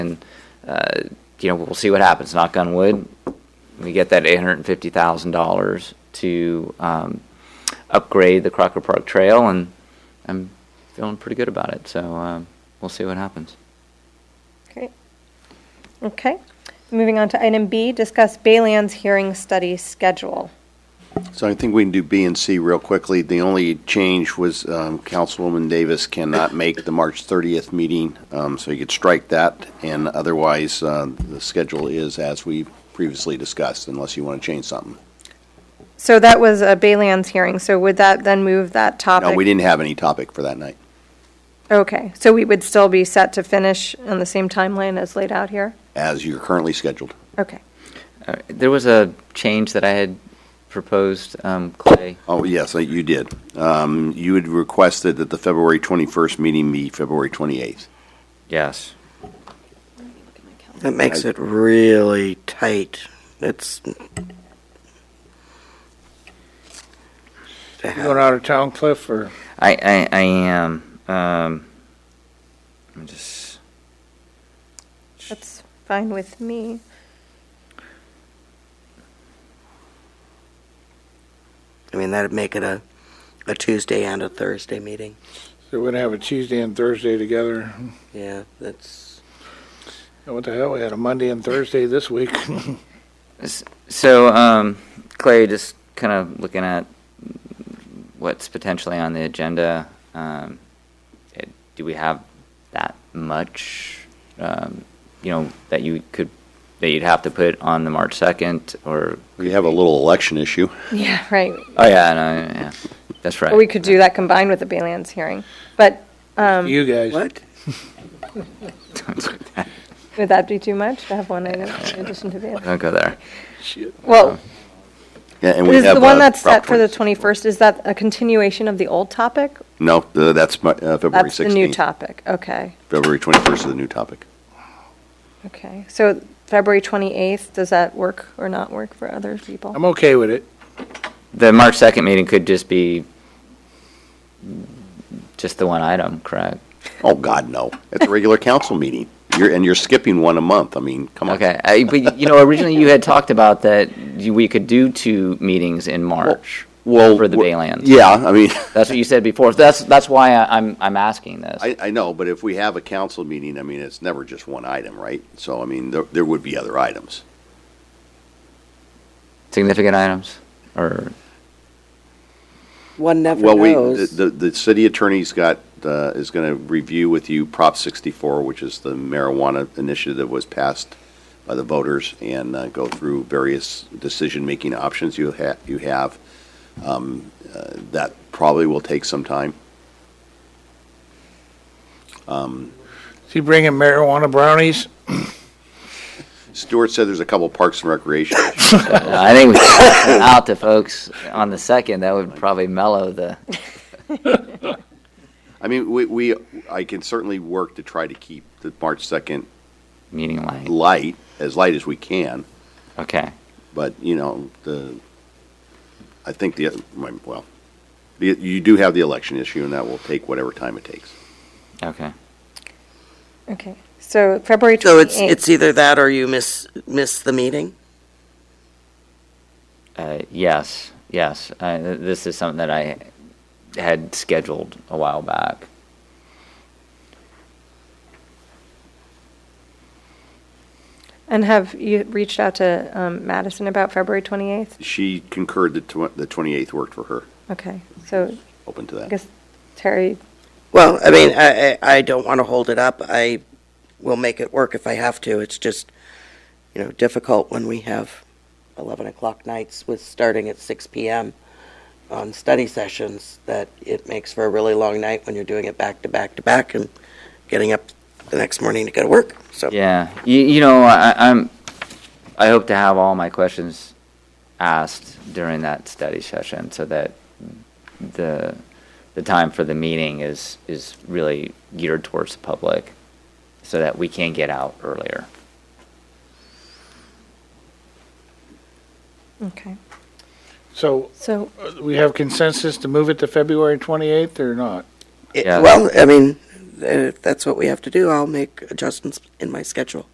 and, uh, you know, we'll see what happens. Knock on wood, we get that eight hundred and fifty thousand dollars to um, upgrade the Crocker Park Trail, and I'm feeling pretty good about it. So um, we'll see what happens. Great. Okay, moving on to item B, discuss Baylands hearing study schedule. So I think we can do B and C real quickly. The only change was um, Councilwoman Davis cannot make the March 30th meeting, um, so you could strike that, and otherwise, uh, the schedule is as we previously discussed, unless you want to change something. So that was a Baylands hearing, so would that then move that topic? No, we didn't have any topic for that night. Okay, so we would still be set to finish on the same timeline as laid out here? as you're currently scheduled. Okay, Uh, there was a change that I had proposed, um, Clay. Oh, yes, uh, you did. Um, You had requested that the February 21st meeting be February 28th. Yes. That makes it really tight. It's. You Going out of town, Cliff, or I, I, I am. Um, I'm just. that's fine with me. I mean, that'd make it a, a Tuesday and a Thursday meeting. so we're gonna have a Tuesday and Thursday together? Yeah, that's. And What the hell? We had a Monday and Thursday this week. S- So, um, Clay, just kind of looking at what's potentially on the agenda, um, it- do we have that much, um, you know, that you could, that you'd have to put on the March 2nd, or? We have a little election issue. Yeah, right. Oh, yeah, no, yeah, that's right. Or we could do that combined with the Baylands hearing. But You guys. What? would that be too much to have one item in addition to the other? Don't go there. Well, Yeah, and we is the have, one uh, that's Prop set for the 20 21st, is that a continuation of the old topic? No, th- that's my- uh, February That's 16th. the new topic, okay. February 21st is the new topic. Okay, so February 28th, does that work or not work for other people? Um, I'm okay with it. The March 2nd meeting could just be just the one item, correct? Oh, God, no. It's a regular council meeting. You're, and you're skipping one a month. I mean, come on. Okay, I, but you know, originally you had talked about that you, we could do two meetings in March Well, for the w- Baylands. Yeah, I mean, That's what you said before. That's that's why I, I'm I'm asking this. I, I know, but if we have a council meeting, I mean, it's never just one item, right? So, I mean, there, there would be other items. Significant items, or One never Well, we, knows. the, the the city attorney's got, uh, is going to review with you Prop 64, which is the marijuana initiative that was passed by the voters, and uh, go through various decision-making options you ha, you have. Um, uh, That probably will take some time. Is he bringing marijuana brownies? Stuart said there's a couple parks and recreation. issues. I think we should put that out to folks on the second. That would probably mellow the. I mean, we, we, I can certainly work to try to keep the March 2nd Meeting light. light, as light as we can, Okay. but, you know, the, I think the, well, the- you do have the election issue, and that will take whatever time it takes. Okay. Okay, so February 28th. so it's it's e- either that or you miss miss the meeting. Uh, yes. Yes. Uh, th- this is something that I had scheduled a while back. And have you reached out to um, Madison about February 28th? She concurred that tw- the 28th worked for her, Okay, so open to I that. guess Terry, Well, I mean, I, I, I don't want to hold it up. I will make it work if I have to. It's just, you know, difficult when we have 11 o'clock nights with starting at 6 p.m. on study sessions that it makes for a really long night when you're doing it back to back to back and getting up the next morning to go to work. So, Yeah, you, you know, I, I'm, I hope to have all my questions asked during that study session so that the, the time for the meeting is, is really geared towards the public so that we can get out earlier. okay, So so, uh, we have consensus to move it to February 28th or not? it, Yeah. well, I mean, uh, if that's what we have to do, I'll make adjustments in my schedule.